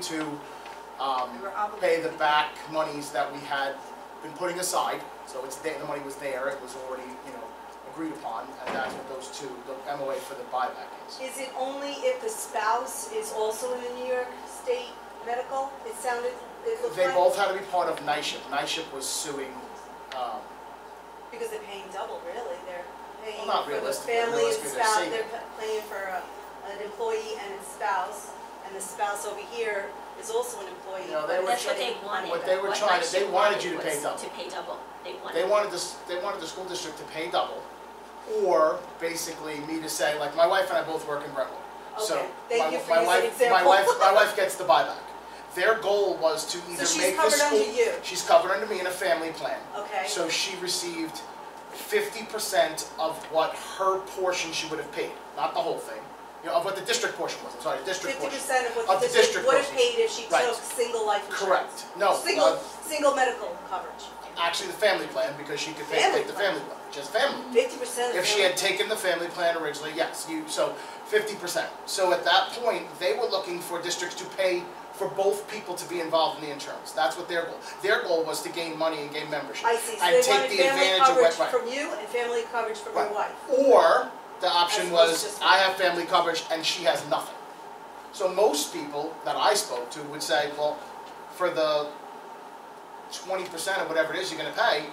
to um, We were pay the obligated. back monies that we had been putting aside. So it's there, the money was there, it was already, you know, agreed upon, and that's what those two, the MOA for the buyback is. Is it only if the spouse is also in the New York State medical? It sounded, it looked They like, both had to be part of NYSHIP. NYSHIP was suing, um, because they're paying double, really. They're paying not for the realistically, family and realistically, they're spouse, saving. they're pa- paying for a- an employee and its spouse, and the spouse over here is also an employee. You know, they but were that's That's what they wanted. What they were What trying to- they Hardship wanted you to wanted pay was double. To pay double. They They wanted. wanted this, they wanted the school district to pay double, or basically me to say, like, my wife and I both work in Brentwood. So Okay, thank my- you for my wife- using My example. wife, my wife gets the buyback. Their goal was to either make the she's school. covered under you? She's covered under me in a family plan. Okay. So she received fifty percent of what her portion she would have paid, not the whole thing, you know, of what the district portion was, I'm sorry, the district Fifty portion. percent of Of what the the district district would have person's. paid if she Right. took single life insurance. Correct, no, Single, uh, Mm-hmm. single medical coverage. actually the family plan, because she could pay, Family take the plan. family plan, just family. Fifty percent of If she them, had taken the family plan originally, yes, you, so fifty percent. So at that point, they were looking for districts to pay for both people to be involved in the insurance. That's what their goal, their goal was to gain money and gain membership. I see, so and they take wanted the family advantage of coverage what- right. from you and family coverage from Right. your wife. Or the option As opposed was, to- I have family coverage and she has nothing. So most people that I spoke to would say, well, for the twenty percent or whatever it is you're gonna pay,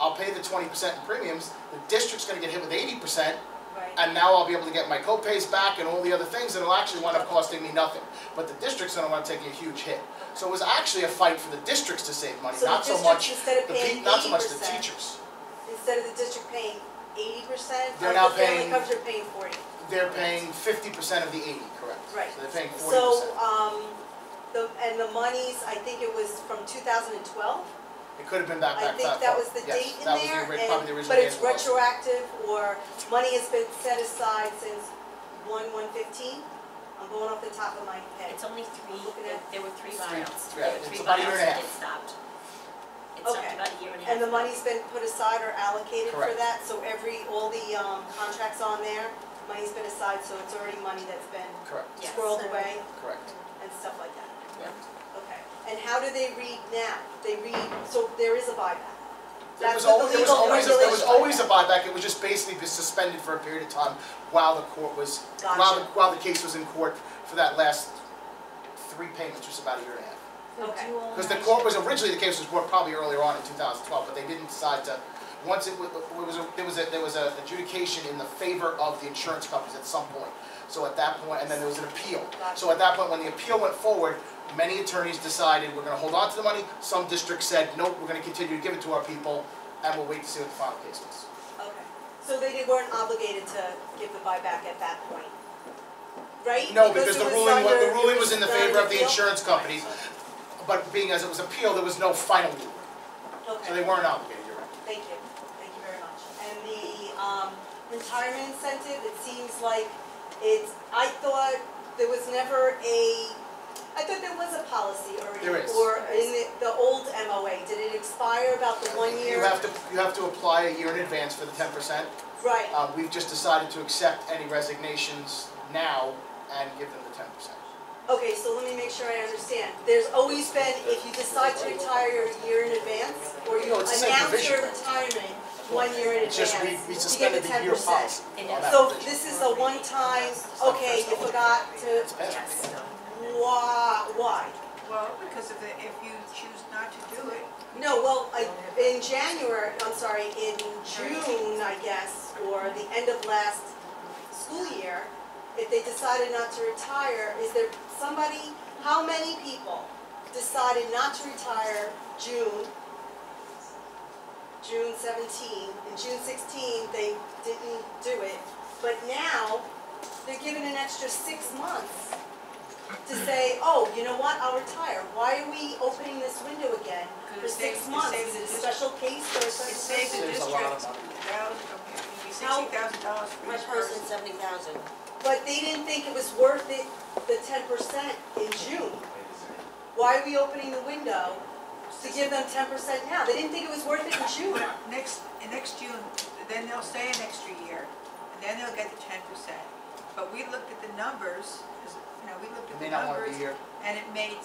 I'll pay the twenty percent in premiums, the district's gonna get hit with eighty percent, Right, and now I'll be able to get my co-pays back and all the other things, and it'll actually wind up costing me nothing. But the district's gonna wanna take a huge hit. So it was actually a fight for the districts to save money, So the not so districts, much, instead of the pe- paying not so much the 80%, teachers. instead of the district paying eighty percent, They're now of the family paying- coverage, they're paying forty. They're paying fifty percent of the eighty, correct? Right. So they're paying forty So, percent. um, the, and the monies, I think it was from two thousand and twelve? It could have been that I back think that that far. was the Yes, date in that was the there, ori- probably the original and, but it's date it was. retroactive, or money has been set aside since one, one fifteen? I'm going off the top of my head. It's only three, Looking there- at- there were three Three- buyouts. three- There were it's three about a year and a half. buyouts It stopped. It stopped Okay. about a year and a half. And the money's been put aside or allocated for Correct. that, so every, all the, um, contracts on there, money's been aside, so it's already money that's been Correct, Yes. squirreled away correct. and stuff like that. Yeah. Okay, and how do they read now? They read, so there is a buyback. There was That's what al- the there was legal always, a- there was regulations always are. a buyback, it was just basically just suspended for a period of time while the court was, while, the- Gotcha. while the case was in court for that last three payments, just about a year and a half. Okay. Because the court was, originally the case was brought probably earlier on in 2012, but they didn't decide to, once it wa- wa- was, a- there was, a- there was an adjudication in the favor of the insurance companies at some point. So at that point, and then there was an appeal. So at that point, when the appeal went forward, many attorneys decided, we're gonna hold on to the money. Some districts said, nope, we're gonna continue to give it to our people, and we'll wait to see what the final case was. Okay, so they did- weren't obligated to give the buyback at that point, right? No, because the it ruling, wa- under- the ruling was in the it was favor of the under insurance companies, but being as it was appeal, there was no final ruling. appeal? So they Okay, weren't obligated, you're right. thank you, thank you very much. And the um, retirement incentive, it seems like it's, I thought there was never a, I thought there was a policy already. There is. Or in the, the old MOA, did it expire about the one year? You have to, you have to apply a year in advance for the ten percent. Right, Uh, we've just decided to accept any resignations now and give them the ten percent. okay, so let me make sure I understand. There's always been, if you decide to retire a year in advance, or you No, it's the same announce provision. your retirement one year in It's advance, just we, we you get the suspended the ten year percent. policy It on is. that So provision. this is a one-time, okay, you forgot to, Yes. why, why? Well, because if, if you choose not to do it, No, well, I, in January, I'm sorry, in June, I guess, or the end of last school year, if they decided not to retire, is there somebody, how many people decided not to retire June? June seventeen, and June sixteen, they didn't do it, but now, they're given an extra six months to say, oh, you know what, I'll retire. Why are we opening this window again for Because it six saves- it months? Is saves it a the special case or a it special saves the Saves a district a lot of thousand, okay, it'd be How- sixty thousand dollars for each person. person, seventy thousand. But they didn't think it was worth it, the ten percent in June. Why are we opening the window to give them ten percent now? They didn't think it was worth it in June. But next, next June, then they'll stay an extra year, and then they'll get the ten percent. But we looked at the numbers, 'cause, you know, we looked You at may the not want to numbers, be here. and it made